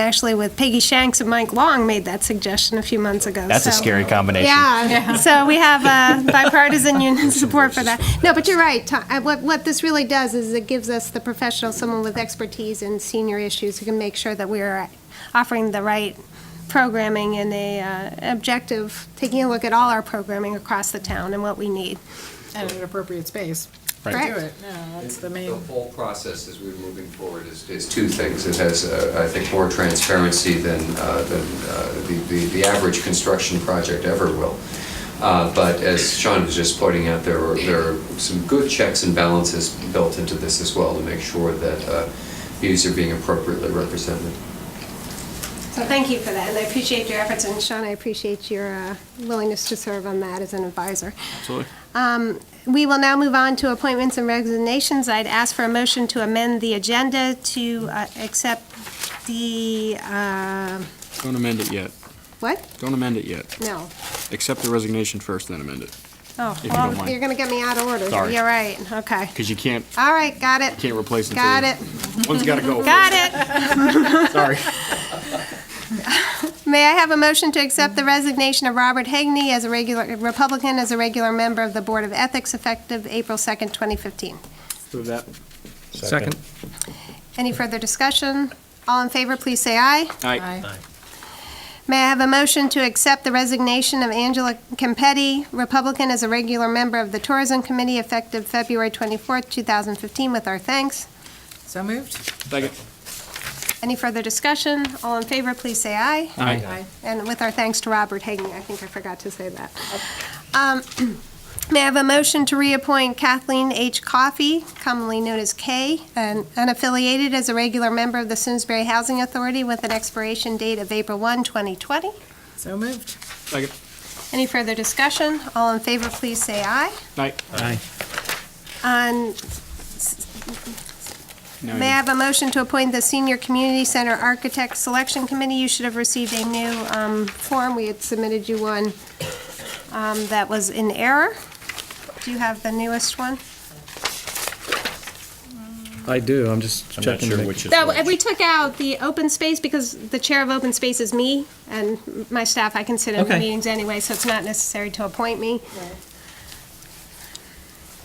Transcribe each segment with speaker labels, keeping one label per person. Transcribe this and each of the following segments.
Speaker 1: actually with Peggy Shanks and Mike Long made that suggestion a few months ago.
Speaker 2: That's a
Speaker 1: so-
Speaker 2: scary combination.
Speaker 1: Yeah, so we have uh, bipartisan union support for that. No, but you're right, Tom, uh, what, what this really does is it gives us the professional, someone with expertise in senior issues who can make sure that we are offering the right programming and a uh, objective, taking a look at all our programming across the town and what we need.
Speaker 3: And an appropriate space to do
Speaker 1: Correct.
Speaker 3: it, yeah, that's the main.
Speaker 4: The whole process as we're moving forward is, is two things. It has, uh, I think, more transparency than, uh, than uh, the, the, the average construction project ever will. Uh, But as Sean was just pointing out, there are, there are some good checks and balances built into this as well to make sure that uh, views are being appropriately represented.
Speaker 1: So thank you for that, and I appreciate your efforts, and Sean, I appreciate your uh, willingness to serve on that as an advisor. Um,
Speaker 5: Absolutely.
Speaker 1: We will now move on to appointments and resignations. I'd ask for a motion to amend the agenda to uh, accept the, uh,
Speaker 5: Don't amend it yet.
Speaker 1: what?
Speaker 5: Don't amend it yet.
Speaker 1: No.
Speaker 5: Accept the resignation first, then amend it.
Speaker 1: Oh,
Speaker 5: you don't
Speaker 1: well,
Speaker 5: mind.
Speaker 1: you're going to get me out of order.
Speaker 5: Sorry.
Speaker 1: You're right, okay.
Speaker 5: Because you can't,
Speaker 1: All right, got it.
Speaker 5: can't replace it.
Speaker 1: Got it,
Speaker 5: One's got to go.
Speaker 1: got it.
Speaker 5: first. Sorry.
Speaker 1: May I have a motion to accept the resignation of Robert Hegney as a regular, Republican, as a regular member of the Board of Ethics effective April 2nd, 2015?
Speaker 5: Move that.
Speaker 6: Second.
Speaker 1: Any further discussion? All in favor, please say aye.
Speaker 5: Aye.
Speaker 3: Aye.
Speaker 1: May I have a motion to accept the resignation of Angela Campetti, Republican, as a regular member of the Tourism Committee effective February 24th, 2015, with our thanks.
Speaker 3: So moved?
Speaker 5: Second.
Speaker 1: Any further discussion? All in favor, please say aye.
Speaker 5: Aye.
Speaker 3: Aye.
Speaker 1: And with our thanks to Robert Hagan, I think I forgot to say that. Um, May I have a motion to reappoint Kathleen H. Coffey, commonly known as Kay, an unaffiliated, as a regular member of the Simsbury Housing Authority with an expiration date of April 1, 2020?
Speaker 3: So moved?
Speaker 5: Second.
Speaker 1: Any further discussion? All in favor, please say aye.
Speaker 5: Aye.
Speaker 1: On,
Speaker 5: Now
Speaker 1: may I have a motion to appoint the Senior Community Center Architect Selection Committee? You should have received a new um, form. We had submitted you one um, that was in error. Do you have the newest one?
Speaker 6: I do, I'm just
Speaker 2: I'm not
Speaker 6: checking. to
Speaker 2: sure
Speaker 6: make-
Speaker 2: which is
Speaker 1: That,
Speaker 2: which.
Speaker 1: we took out the open space because the Chair of Open Space is me, and my staff, I can sit in the
Speaker 6: Okay.
Speaker 1: meetings anyway, so it's not necessary to appoint me.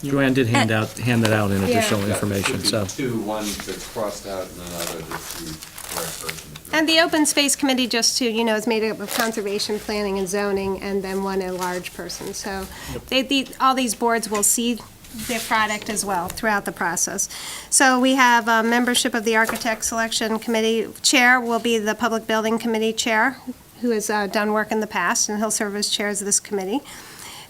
Speaker 6: Joanne did hand out, hand that out in
Speaker 1: Yeah.
Speaker 6: additional information, so.
Speaker 4: Should be two, one that's crossed out and another that's the correct version.
Speaker 1: And the Open Space Committee, just to, you know, is made up of conservation, planning, and zoning, and then one at-large person. So they, the- all these boards will see their product as well throughout the process. So we have uh, membership of the Architect Selection Committee. Chair will be the Public Building Committee Chair, who has uh, done work in the past, and he'll serve as chair of this committee.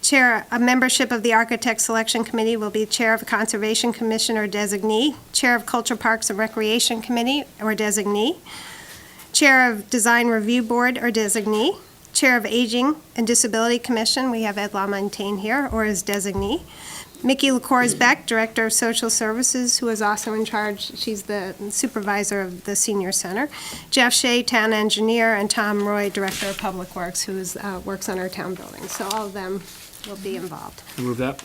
Speaker 1: Chair, a membership of the Architect Selection Committee will be Chair of the Conservation Commission or designee, Chair of Culture Parks and Recreation Committee or designee, Chair of Design Review Board or designee, Chair of Aging and Disability Commission, we have Ed LaMontagne here, or as designee. Mickey LaCours Beck, Director of Social Services, who is also in charge, she's the supervisor of the senior center. Jeff Shea, Town Engineer, and Tom Roy, Director of Public Works, who is, uh, works on our town buildings. So all of them will be involved.
Speaker 5: Move that.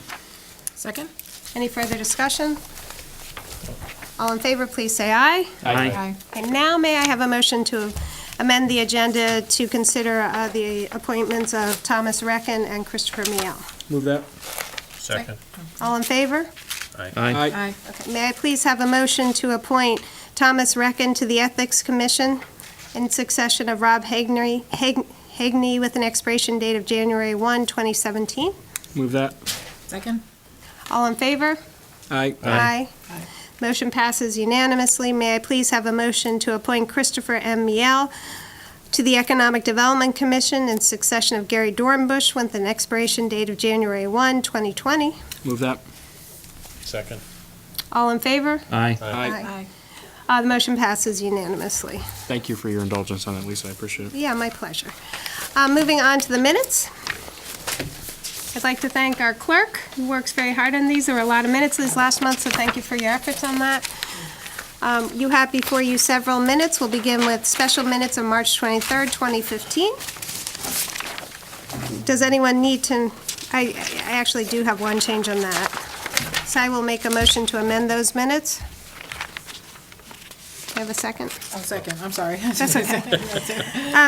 Speaker 3: Second?
Speaker 1: Any further discussion? All in favor, please say aye.
Speaker 3: Aye.
Speaker 1: And now may I have a motion to amend the agenda to consider uh, the appointments of Thomas Reckon and Christopher Miel?
Speaker 5: Move that.
Speaker 3: Second.
Speaker 1: All in favor?
Speaker 6: Aye.
Speaker 3: Aye.
Speaker 1: May I please have a motion to appoint Thomas Reckon to the Ethics Commission in succession of Rob Hagney, Hag- Hagney with an expiration date of January 1, 2017?
Speaker 5: Move that.
Speaker 3: Second?
Speaker 1: All in favor?
Speaker 5: Aye.
Speaker 1: Aye. Motion passes unanimously. May I please have a motion to appoint Christopher M. Miel to the Economic Development Commission in succession of Gary Dornbusch with an expiration date of January 1, 2020?
Speaker 5: Move that.
Speaker 6: Second.
Speaker 1: All in favor?
Speaker 6: Aye.
Speaker 5: Aye.
Speaker 1: Uh, The motion passes unanimously.
Speaker 5: Thank you for your indulgence on that, Lisa. I appreciate it.
Speaker 1: Yeah, my pleasure. Uh, Moving on to the minutes. I'd like to thank our clerk, who works very hard on these. There were a lot of minutes this last month, so thank you for your efforts on that. Um, You have before you several minutes. We'll begin with special minutes of March 23rd, 2015. Does anyone need to, I I actually do have one change on that. So I will make a motion to amend those minutes. Do
Speaker 3: I have a second?
Speaker 1: Oh, second, I'm sorry.
Speaker 3: That's okay.